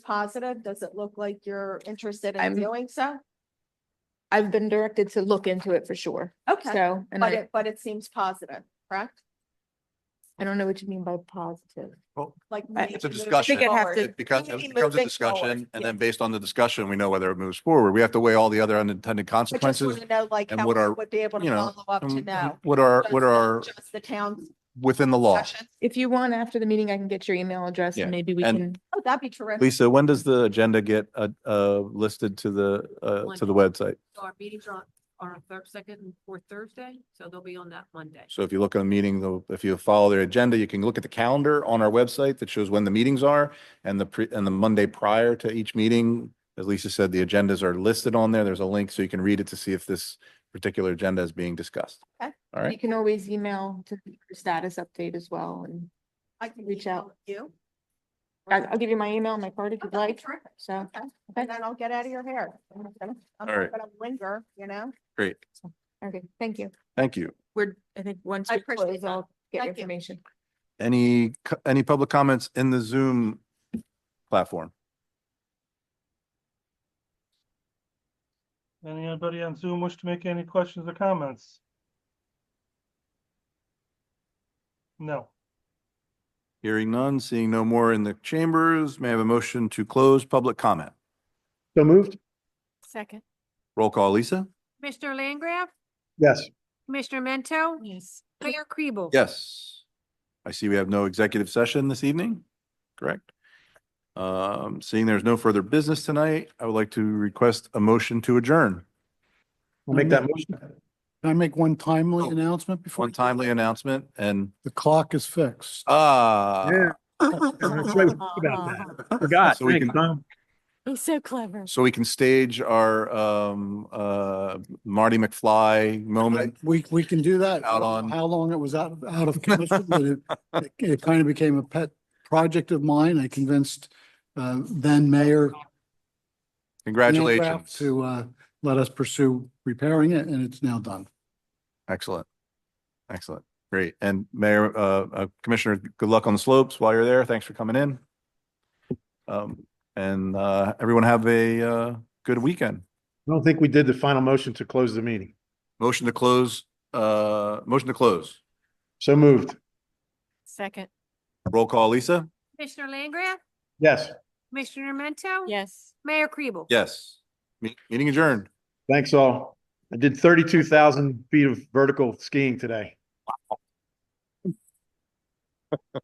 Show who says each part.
Speaker 1: positive? Does it look like you're interested in
Speaker 2: I'm-
Speaker 1: doing so?
Speaker 2: I've been directed to look into it for sure.
Speaker 1: Okay,
Speaker 2: So, and
Speaker 1: but
Speaker 2: I,
Speaker 1: it, but it seems positive, correct?
Speaker 2: I don't know what you mean by positive.
Speaker 1: Like.
Speaker 2: I-
Speaker 1: maybe
Speaker 2: It's
Speaker 3: a
Speaker 1: moving
Speaker 3: discussion.
Speaker 2: I think I'd have
Speaker 1: forward.
Speaker 2: to-
Speaker 3: It becomes,
Speaker 1: Maybe
Speaker 3: it becomes a
Speaker 1: moving forward,
Speaker 3: discussion, and
Speaker 1: yeah.
Speaker 3: then based on the discussion, we know whether it moves forward. We have to weigh all the other unintended
Speaker 1: I just want
Speaker 3: consequences.
Speaker 1: to know like
Speaker 3: and
Speaker 1: how
Speaker 3: what
Speaker 1: we
Speaker 3: our-
Speaker 1: would be able to
Speaker 3: you know,
Speaker 1: follow up to
Speaker 3: and
Speaker 1: know.
Speaker 3: What are,
Speaker 1: Just
Speaker 3: what
Speaker 1: not
Speaker 3: are
Speaker 1: Just the town's
Speaker 3: within the law?
Speaker 1: sessions.
Speaker 2: If you want, after the meeting, I can get your email address
Speaker 3: Yeah,
Speaker 2: and maybe we
Speaker 3: and-
Speaker 2: can,
Speaker 1: Oh, that'd be terrific.
Speaker 3: Lisa, when does the agenda get uh, uh, listed to the, uh, to the website?
Speaker 4: So our meetings are on, are on third, second and fourth Thursday, so they'll be on that Monday.
Speaker 3: So if you look on the meeting, though, if you follow their agenda, you can look at the calendar on our website that shows when the meetings are and the, pre- and the Monday prior to each meeting. As Lisa said, the agendas are listed on there. There's a link so you can read it to see if this particular agenda is being discussed.
Speaker 1: Okay.
Speaker 3: All
Speaker 2: you
Speaker 3: right.
Speaker 2: can always email to for status update as well. And
Speaker 1: I can
Speaker 2: reach
Speaker 1: email
Speaker 2: out.
Speaker 1: You.
Speaker 2: I- I'll give you my email, my card if
Speaker 1: Oh,
Speaker 2: you'd
Speaker 1: that'd be
Speaker 2: like.
Speaker 1: terrific.
Speaker 2: So,
Speaker 1: Okay, And then I'll get out of your hair. I'm not gonna I'm
Speaker 3: All right.
Speaker 1: not gonna linger, you know?
Speaker 3: Great.
Speaker 2: okay, thank you.
Speaker 3: Thank you.
Speaker 2: We're, I think once
Speaker 1: I
Speaker 2: we
Speaker 1: appreciate
Speaker 2: close,
Speaker 1: that.
Speaker 2: I'll get your
Speaker 1: Thank you.
Speaker 2: information.
Speaker 3: Any, co- any public comments in the Zoom platform?
Speaker 5: Anybody on Zoom wish to make any questions or comments? No.
Speaker 3: Hearing none, seeing no more in the chambers. May I have a motion to close public comment?
Speaker 6: So moved?
Speaker 4: Second.
Speaker 3: Roll call, Lisa?
Speaker 4: Commissioner Langgraf?
Speaker 6: Yes.
Speaker 4: Commissioner Mento? Yes. Mayor Kribel?
Speaker 3: Yes. I see we have no executive session this evening, correct? Um, seeing there's no further business tonight, I would like to request a motion to adjourn.
Speaker 6: I'll make that motion.
Speaker 7: Can I make one timely
Speaker 3: Oh,
Speaker 7: announcement before?
Speaker 3: One timely announcement and,
Speaker 7: The clock is fixed.
Speaker 3: ah.
Speaker 6: Forgot.
Speaker 3: So we
Speaker 6: Thanks,
Speaker 3: can-
Speaker 6: Tom.
Speaker 4: He's so clever.
Speaker 3: So we can stage our, um, uh, Marty McFly moment.
Speaker 7: We, we can do that.
Speaker 3: Out on-
Speaker 7: How long it was out, of- out of commission, but it, it- it kind of became a pet project of mine. I convinced uh, then Mayor Landgraf
Speaker 3: Congratulations.
Speaker 7: to uh, let us pursue repairing it and it's now done.
Speaker 3: Excellent. Excellent. Great. And Mayor, uh, uh, Commissioner, good luck on the slopes while you're there. Thanks for coming in. Um, and, uh, everyone have a, uh, good weekend.
Speaker 6: I don't think we did the final motion to close the meeting.
Speaker 3: Motion to close, uh, motion to close.
Speaker 6: So moved?
Speaker 4: Second.
Speaker 3: Roll call, Lisa?
Speaker 4: Commissioner Langgraf?
Speaker 6: Yes.
Speaker 4: Commissioner Mento?
Speaker 2: Yes.
Speaker 4: Mayor Kribel?
Speaker 3: Yes. Me- Meeting adjourned.
Speaker 6: Thanks all. I did thirty-two thousand feet of vertical skiing today.